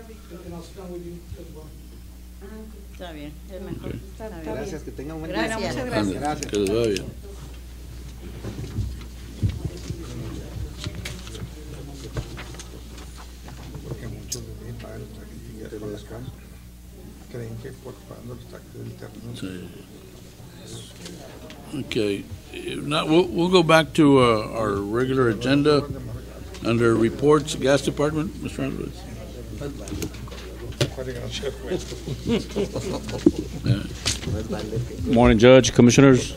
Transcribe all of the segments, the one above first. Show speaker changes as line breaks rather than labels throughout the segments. I'll stand with you as well.
Está bien, es mejor.
Está-
Está
está
bien.
Gracias, que tengan un buen día.
Gracias, muchas
Ande,
gracias.
Que les vaya bien.
Porque muchos de mí pagan los taxis y ya con las camas. Creen que por pagando los taxis del terreno.
Sí. Okay, if not, we'll, we'll go back to uh, our regular agenda under reports, gas department, Mr. Andres.
Morning, Judge, Commissioners.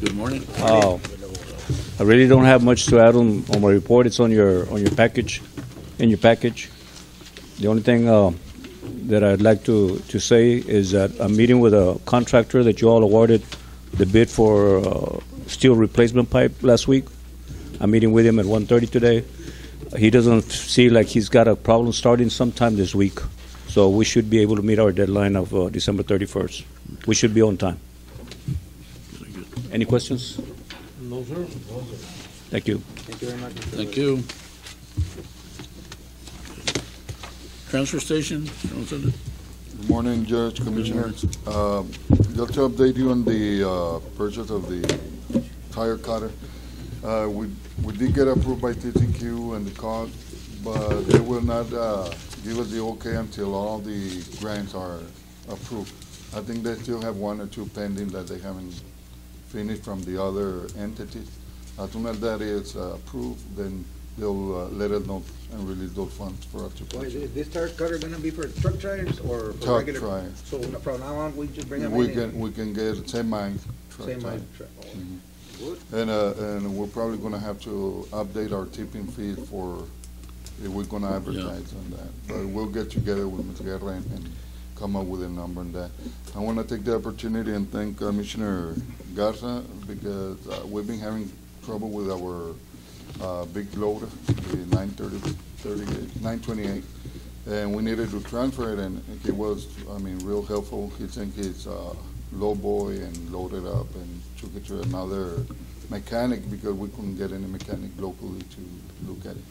Good morning.
Uh, I really don't have much to add on, on my report. It's on your, on your package, in your package. The only thing uh, that I'd like to, to say is that I'm meeting with a contractor that you all awarded the bid for uh, steel replacement pipe last week. I'm meeting with him at 1:30 today. He doesn't see like he's got a problem starting sometime this week, so we should be able to meet our deadline of uh, December 31st. We should be on time. Any questions?
No, sir.
Thank you.
Thank you very much. Mr.
Thank you. Transfer station, Mr. Gonzalez.
Good morning, Judge, Commissioners. Um, Just to update you on the uh, purchase of the tire cutter. Uh, We we did get approved by TTQ and the cost, but they will not uh, give us the okay until all the grants are approved. I think they still have one or two pending that they haven't finished from the other entities. As soon as that is uh, approved, then they'll uh, let us know and release those funds for us to
Well, is-
purchase.
is this tire cutter gonna be for truck tires or for
Truck
regular?
tire.
So n- from now on, we just bring them
We
in
can,
and
we can get Mm-hmm. the same mine.
same mine truck? Oh,
And, uh, and we're probably gonna have to update our tipping fee for, if we're gonna advertise on that. But we'll get together with Ms. Guerra and, and come up with a number on that. I wanna take the opportunity and thank uh, Commissioner Garza because uh, we've been having trouble with our, uh, big loader, the nine thirty, thirty-eight, nine twenty-eight. And we needed to transfer it and he was, I mean, real helpful. He sent his, uh, low boy and loaded up and took it to another mechanic because we couldn't get any mechanic locally to look at it.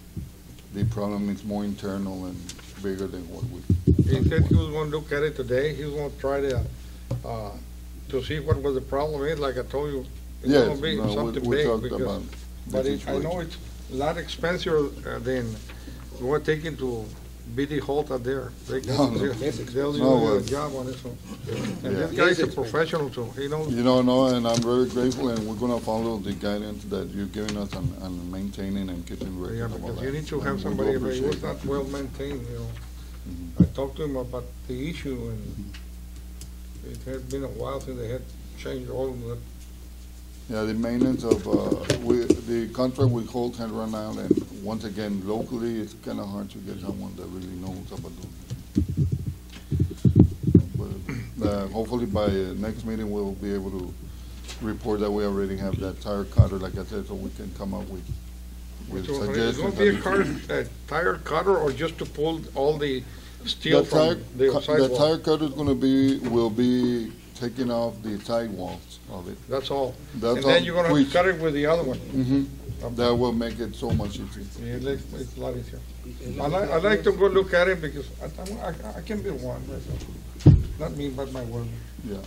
The problem is more internal and bigger than what we.
He said he was gonna look at it today, he was gonna try to, uh, to see what was the problem is, like I told you. It's
Yes,
gonna be
no, we-
something
we
big
talked
because-
about the
But it- I know
situation.
it's a lot expensive uh, than we're taking to BD Holta there. They
No, no.
can- They'll
No,
do a
uh,
job on this one.
Yeah.
And this
It
guy's
is
a
expensive.
professional too, he knows.
You know, no, and I'm very grateful and we're gonna follow the guidance that you're giving us on, on maintaining and keeping record
Yeah,
of all
because
that.
you need to
And we
have
do
somebody, if it
appreciate
was
that.
not well maintained, you know.
Mm-hmm.
I talked to him about the issue and
Mm-hmm.
it had been a while since they had changed all of that.
Yeah, the maintenance of, uh, we, the contract with Holt had run out, and once again, locally, it's kinda hard to get someone that really knows about those. But, uh, hopefully by uh, next meeting, we'll be able to report that we already have that tire cutter, like I said, so we can come up with, with
So, It's gonna
suggestions.
be a car, a tire cutter or just to pull all the steel
The tire,
from the
cu- the tire
sidewalk?
cutter's gonna be, will be taking off the sidewalls of it.
That's all.
That's
And
all
then you're gonna
which-
cut it with the other one.
Mhm.
Okay.
That will make it so much easier.
Yeah, it looks- it's a lot easier. I like, I like to go look at it because I, I- I can build one myself. Not me, but my work.
Yeah,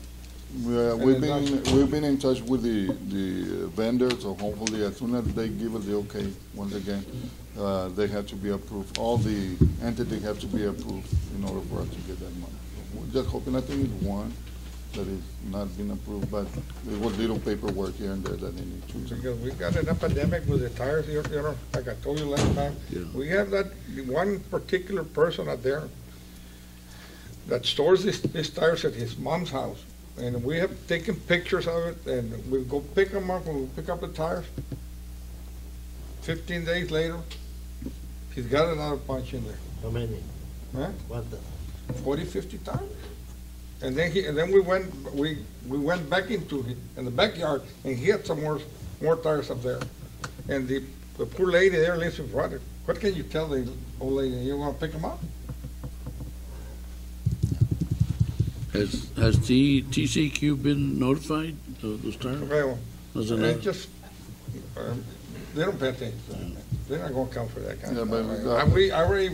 And
uh, we've
then
been, we've been in touch with the, the uh, vendors, so hopefully as soon as they give us the okay, once again, uh, they have to be approved, all the entity have to be approved in order for us to get that money. We're just hoping, I think it's one that is not been approved, but there was little paperwork here and there that they need to.
Because we got an epidemic with the tires, you you know, like I told you last time.
Yeah.
We have that one particular person out there that stores his, his tires at his mom's house. And we have taken pictures of it and we go pick them up, we pick up the tires. Fifteen days later, he's got another bunch in there.
How many?
Huh?
What the?
forty, fifty times. And then he, and then we went, we, we went back into, hi- in the backyard, and he had some more, more tires up there. And the, the poor lady there lives in front of, what can you tell the old lady, you wanna pick them up?
Has, has T, TCQ been notified of those tires?
Okay, well,
Was it
and it
not?
just, um, they don't pay attention, to that. they're not gonna come for that kind
Yeah,
of
but
stuff.
we got-
I- We, I already